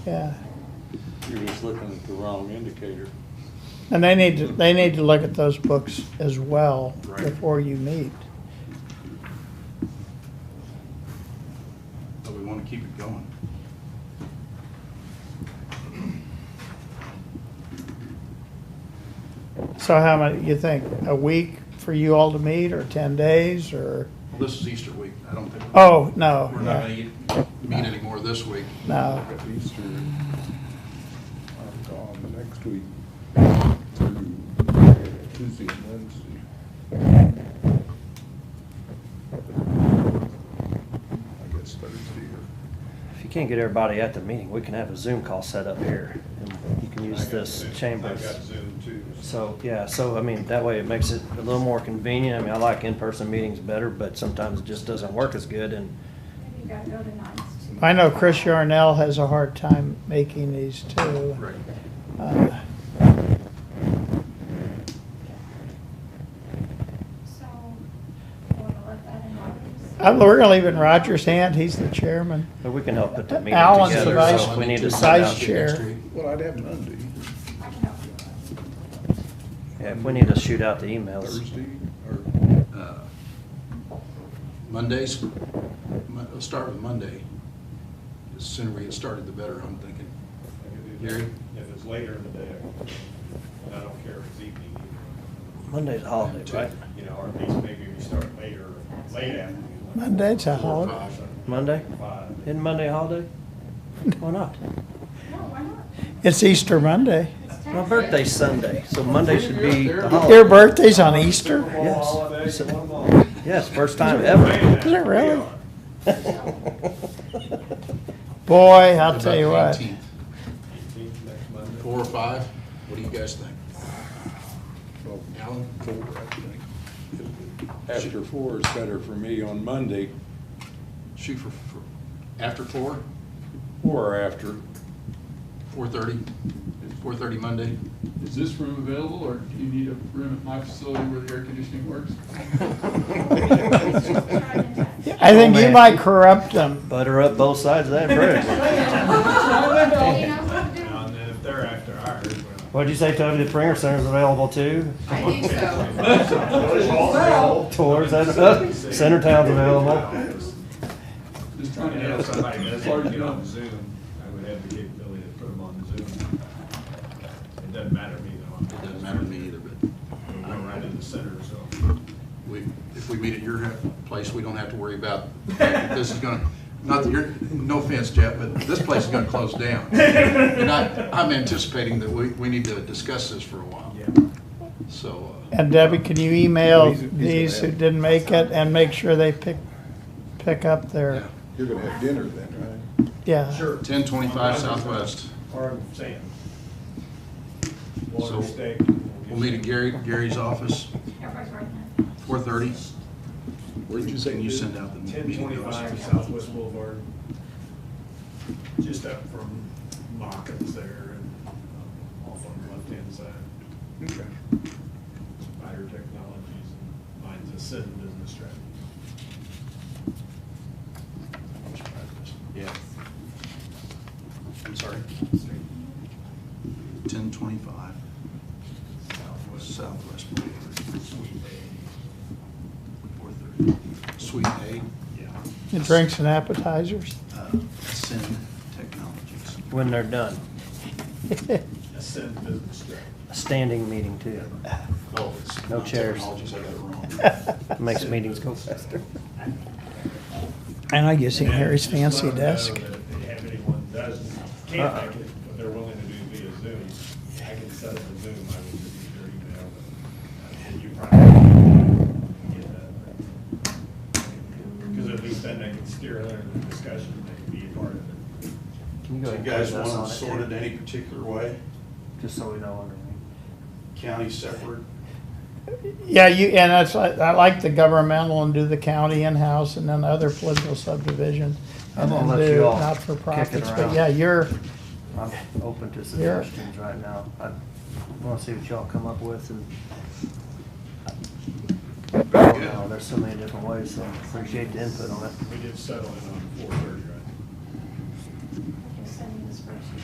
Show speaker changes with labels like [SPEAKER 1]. [SPEAKER 1] yeah.
[SPEAKER 2] You're just looking at the wrong indicator.
[SPEAKER 1] And they need to, they need to look at those books as well
[SPEAKER 2] Right.
[SPEAKER 1] before you meet.
[SPEAKER 3] but we want to keep it going.
[SPEAKER 1] So how many, you think, a week for you all to meet, or ten days, or,
[SPEAKER 3] Well, this is Easter week. I don't think. we're-
[SPEAKER 1] oh, no.
[SPEAKER 3] We're not going to meet anymore this week.
[SPEAKER 1] No,
[SPEAKER 4] At Easter, I'm gone um, next week through Tuesday and Wednesday. I guess Thursday or.
[SPEAKER 5] If you can't get everybody at the meeting, we can have a Zoom call set up here, and you can use this
[SPEAKER 4] I got
[SPEAKER 5] chambers.
[SPEAKER 4] Zoom too.
[SPEAKER 5] So, yeah, so, I mean, that way it makes it a little more convenient. I mean, I like in-person meetings better, but sometimes it just doesn't work as good, and
[SPEAKER 6] You gotta go to nights too.
[SPEAKER 1] I know Chris Yarnell has a hard time making these too.
[SPEAKER 3] Right.
[SPEAKER 1] Uh,
[SPEAKER 6] So, you wanna let that in Rogers?
[SPEAKER 1] I- We're gonna leave it in Roger's hand, he's the chairman.
[SPEAKER 5] but we can help put the meeting
[SPEAKER 1] Alan's
[SPEAKER 5] together.
[SPEAKER 1] the
[SPEAKER 5] So
[SPEAKER 1] vice-
[SPEAKER 5] if we need to send
[SPEAKER 1] vice
[SPEAKER 5] out,
[SPEAKER 1] chair.
[SPEAKER 4] Well, I'd have Monday,
[SPEAKER 6] I can help you.
[SPEAKER 5] yeah, if we need to shoot out the emails.
[SPEAKER 4] Thursday, or,
[SPEAKER 3] Uh, Mondays, Mon- let's start with Monday. The sooner we get started, the better, I'm thinking. Gary?
[SPEAKER 7] If it's later in the day, I don't care if it's evening either.
[SPEAKER 5] Monday's a holiday, right?
[SPEAKER 7] You know, or at least maybe we start later, late afternoon. like
[SPEAKER 1] Monday's a
[SPEAKER 3] Four or
[SPEAKER 1] holiday.
[SPEAKER 3] five.
[SPEAKER 5] Monday?
[SPEAKER 7] Five.
[SPEAKER 5] Isn't Monday a holiday? Why not?
[SPEAKER 6] No, why not?
[SPEAKER 1] It's Easter Monday.
[SPEAKER 6] It's tax
[SPEAKER 5] My
[SPEAKER 6] day.
[SPEAKER 5] birthday's Sunday, so Monday should be the holiday.
[SPEAKER 1] Your birthday's on Easter?
[SPEAKER 7] Football
[SPEAKER 5] Yes.
[SPEAKER 7] holidays,
[SPEAKER 5] So-
[SPEAKER 7] one ball.
[SPEAKER 5] Yes, first time
[SPEAKER 7] Wait a
[SPEAKER 5] ever.
[SPEAKER 7] minute.
[SPEAKER 1] Is it really?
[SPEAKER 5] Well,
[SPEAKER 1] Boy, I'll tell you
[SPEAKER 3] About
[SPEAKER 1] what.
[SPEAKER 3] the 18th.
[SPEAKER 7] Eighteenth next Monday.
[SPEAKER 3] Four or five, what do you guys think?
[SPEAKER 4] well,
[SPEAKER 3] Alan?
[SPEAKER 4] four, I think.
[SPEAKER 2] After four is better for me on Monday,
[SPEAKER 3] Shoot for, for, after four,
[SPEAKER 2] or after.
[SPEAKER 3] four-thirty, four-thirty Monday?
[SPEAKER 8] Is this room available, or do you need a room at my facility where the air conditioning works?
[SPEAKER 1] I think you might corrupt them.
[SPEAKER 5] Butter up both sides of that bridge.
[SPEAKER 6] You know what to do.
[SPEAKER 7] And then if they're after ours, we're
[SPEAKER 5] What'd you say, Toby? The Pringer Center's available too?
[SPEAKER 9] I think so.
[SPEAKER 5] Tours, that's, uh, Center Town's available.
[SPEAKER 8] Just trying to
[SPEAKER 7] not. You know,
[SPEAKER 8] help
[SPEAKER 7] if somebody
[SPEAKER 8] as far
[SPEAKER 7] doesn't
[SPEAKER 8] as you
[SPEAKER 7] get
[SPEAKER 8] know.
[SPEAKER 7] on Zoom, I would have the capability to put them on Zoom. It doesn't matter to me though.
[SPEAKER 3] It doesn't matter to me either, but
[SPEAKER 7] We're right in the center, so.
[SPEAKER 3] we, if we meet at your place, we don't have to worry about, this is gonna, not that you're, no offense, Jeff, but this place is gonna close down. And I, I'm anticipating that we, we need to discuss this for a while. So, uh,
[SPEAKER 1] And Debbie, can you email
[SPEAKER 4] He's- he's gonna
[SPEAKER 1] these who
[SPEAKER 4] have-
[SPEAKER 1] didn't make it and make sure they pick, pick up
[SPEAKER 3] yeah,
[SPEAKER 1] their,
[SPEAKER 4] You're gonna have dinner then, right?
[SPEAKER 1] yeah.
[SPEAKER 3] ten twenty-five Southwest.
[SPEAKER 7] Or sand.
[SPEAKER 3] So,
[SPEAKER 7] Water stake.
[SPEAKER 3] We'll meet at Gary, Gary's office,
[SPEAKER 6] Everybody's right now.
[SPEAKER 3] four thirty.
[SPEAKER 4] Where'd you say
[SPEAKER 3] Can you
[SPEAKER 4] dinner?
[SPEAKER 3] send out the
[SPEAKER 7] Ten
[SPEAKER 3] meeting notice?
[SPEAKER 7] twenty-five Southwest Boulevard. Just up from Mockins there and um, off on the left-hand side,
[SPEAKER 4] Okay.
[SPEAKER 7] Spider Technologies and mine's a Sin Business Strategy.
[SPEAKER 3] Yeah. I'm sorry? Ten twenty-five
[SPEAKER 7] Southwest
[SPEAKER 3] Southwest Boulevard,
[SPEAKER 7] Sweet
[SPEAKER 3] four thirty. Suite A,
[SPEAKER 7] Bay. Yeah.
[SPEAKER 1] And drinks and appetizers.
[SPEAKER 3] uh, Sin Technologies.
[SPEAKER 5] When they're done.
[SPEAKER 7] A Sin Business Strategy.
[SPEAKER 5] A standing meeting too.
[SPEAKER 3] Oh, it's
[SPEAKER 5] No
[SPEAKER 3] not
[SPEAKER 5] chairs.
[SPEAKER 3] Technologies, I got it wrong.
[SPEAKER 5] Makes meetings go faster.
[SPEAKER 1] And I guess
[SPEAKER 7] And
[SPEAKER 1] Harry's
[SPEAKER 7] just let
[SPEAKER 1] fancy
[SPEAKER 7] them know
[SPEAKER 1] desk.
[SPEAKER 7] that If anyone does,
[SPEAKER 5] Uh-uh.
[SPEAKER 7] can't make it, but they're willing to do via Zoom, I can set up a Zoom, I would just be your email. but, uh, You probably get that. Because at least then they can steer other discussion, they can be a part of it.
[SPEAKER 5] Can you
[SPEAKER 10] Do you
[SPEAKER 5] go ahead and
[SPEAKER 10] guys
[SPEAKER 5] put us on
[SPEAKER 10] want
[SPEAKER 5] it,
[SPEAKER 10] it sorted
[SPEAKER 5] too?
[SPEAKER 10] any particular way?
[SPEAKER 5] Just so we know underneath.
[SPEAKER 10] County separate?
[SPEAKER 1] Yeah, you, and that's, I I like the governmental and do the county in-house and then other political subdivisions.
[SPEAKER 5] I'm gonna
[SPEAKER 1] and
[SPEAKER 5] let
[SPEAKER 1] do
[SPEAKER 5] you all kick
[SPEAKER 1] Not-for-profits,
[SPEAKER 5] it
[SPEAKER 1] but
[SPEAKER 5] around.
[SPEAKER 1] yeah, you're,
[SPEAKER 5] I'm open to suggestions right now. I wanna see what y'all come up with and. Oh, I don't know, there's so many different ways, so I appreciate the input on it.
[SPEAKER 7] We did settle in on four thirty